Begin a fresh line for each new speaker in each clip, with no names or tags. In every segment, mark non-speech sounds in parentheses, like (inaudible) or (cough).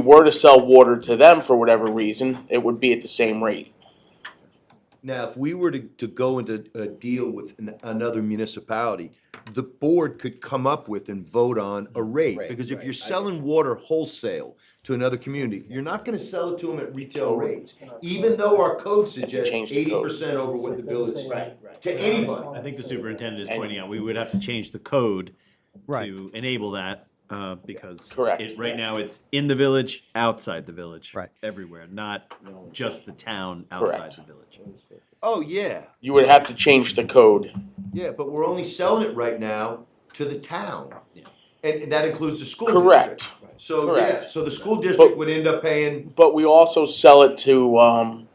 were to sell water to them for whatever reason, it would be at the same rate.
Now, if we were to, to go into a deal with an- another municipality, the board could come up with and vote on a rate.
Rate,
Because if
right,
you're
I
selling water wholesale to another community, you're not gonna sell it to them at retail rates. Even though our code suggests
change the
eighty
code.
percent over what the bill is
Right, right.
to anybody.
I think the superintendent is
And-
pointing out, we would have to change the code
Right.
to enable that, uh, because
Correct.
it- right now, it's in the village, outside the village.
Right.
Everywhere, not just the town outside
Correct.
the village.
Oh, yeah,
You would have to change the code.
yeah, but we're only selling it right now to the town.
Yeah.
And, and that includes the school district.
Correct.
So, yeah,
Correct.
so the school district
But-
would end up paying
But we also sell it to um,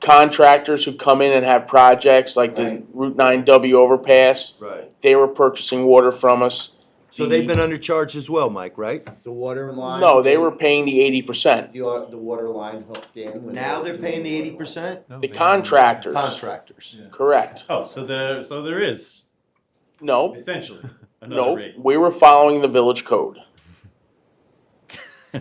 contractors who come in and have projects like the
Right.
Route 9W overpass.
Right.
They were purchasing water from us.
So they've been undercharged as well, Mike, right?
The water line.
No, they were paying the 80%.
The, wa- the water line hooked in. when
Now
they
they're
were
paying the
doing
eighty
water line.
percent?
No,
The
they-
contractors.
Contractors.
Correct.
Oh, so there, so there is,
No,
essentially, another
no,
rate.
we were following the village code.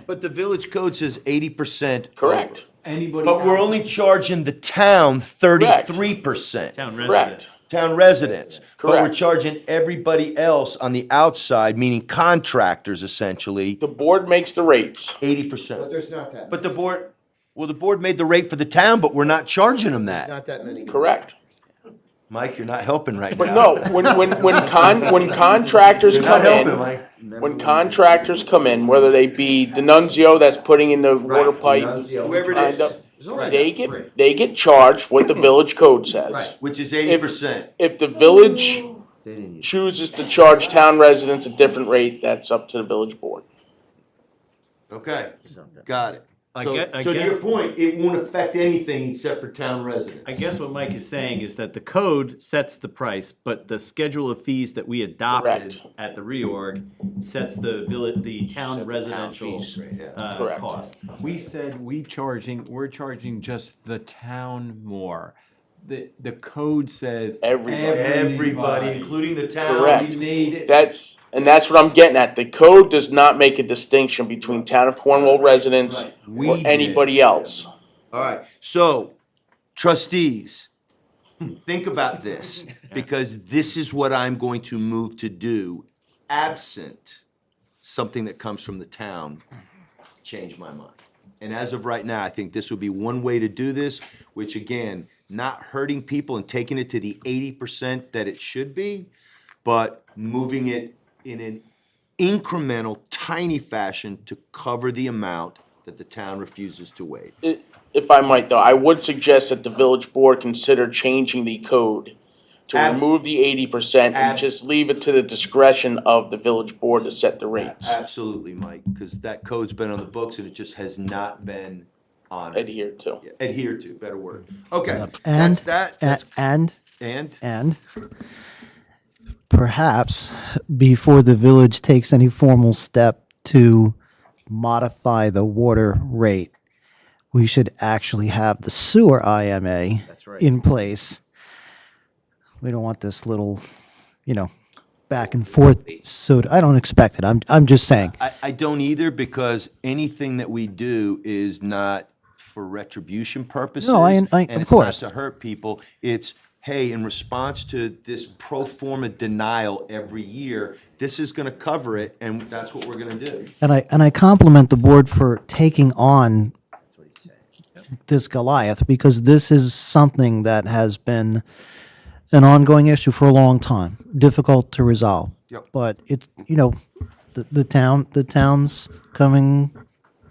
But the village code says eighty percent.
Correct.
Anybody.
But we're
out-
only charging the town thirty-three percent.
Town
Correct.
residents.
Town residents. But we're
Correct.
charging everybody else on the outside, meaning contractors essentially,
The board makes the rates.
eighty
But
percent.
there's not that.
But the board, well, the board made the rate for the town, but we're not charging them
There's
that.
not that many.
Correct.
Mike, you're not helping right now.
But no, when, when, when con,
(laughs)
when contractors
You're not
come
helping,
in,
Mike.
when contractors come in, whether they be Denunzio that's putting in the water pipe,
Whoever it
lined
is,
up,
There's only
they
that three.
get, they get charged what the village code
Right.
says.
which is eighty percent.
If the village
They didn't use.
chooses to charge town residents a different rate, that's up to the village board.
Okay, got it.
I
So-
get- I
So to your
guess-
point, it won't affect anything except for town residents.
I guess what Mike is saying is that the code sets the price, but the schedule of fees that we adopted
Correct.
at the reorg sets the village, the town residential, uh,
Correct.
cost.
We said we charging, we're charging just the town more. The, the code says.
Everybody.
Everybody, including the town.
Correct.
We made it.
That's, and that's what I'm getting at. The code does not make a distinction between town of Cornwall residents
Right.
We
or
did.
anybody else.
All right, so trustees, think about this, because this is what I'm going to move to do absent something that comes from the town change my mind. And as of right now, I think this would be one way to do this, which again, not hurting people and taking it to the eighty percent that it should be, but moving it in an incremental, tiny fashion to cover the amount that the town refuses to waive.
I- If I might though, I would suggest that the village board consider changing the code to
Ab-
remove the eighty percent and
Ab-
just leave it to the discretion of the village board to set the rates
Absolutely, Mike, because that code's been on the books and it just has not been honored,
adhered to.
adhered to, better word. Okay,
And,
that's that,
and,
that's,
and,
and,
and perhaps before the village takes any formal step to modify the water rate, we should actually have the sewer IMA in place. We don't want this little, you know, back and forth. So I don't expect it. I'm, I'm just saying.
I, I don't either because anything that we do is not for retribution purposes.
I-
And
of
it's not
course.
to hurt people, it's, hey, in response to this pro forma denial every year, this is gonna cover it and that's what we're gonna do.
And I, and I compliment the board for taking on this Goliath, because this is something that has been an ongoing issue for a long time, difficult to resolve.
Yep.
But it's, you know, the, the town, the town's coming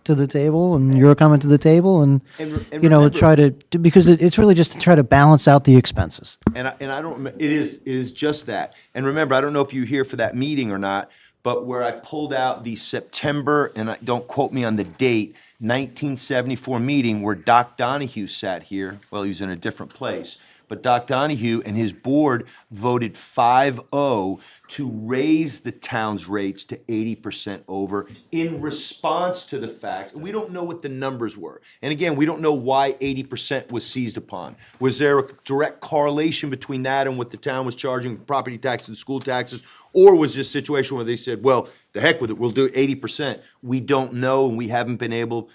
to the table, and you're coming to the table, and,
And re- and
you know,
remember-
try to, to- because it, it's really just to try to balance out the expenses.
and I, and I don't, remem- it is, it is just that. And remember, I don't know if you were here for that meeting or not, but where I pulled out the September, and I, don't quote me on the date, nineteen seventy-four meeting where Doc Donahue sat here, well, he was in a different place, But Doc Donahue and his board voted 5-0 to raise the town's rates to 80% over in response to the fact, we don't know what the numbers were. And again, we don't know why 80% was seized upon. Was there a direct correlation between that and what the town was charging, property taxes and school taxes? Or was this a situation where they said, well, the heck with it, we'll do 80%? We don't know, and we haven't been able,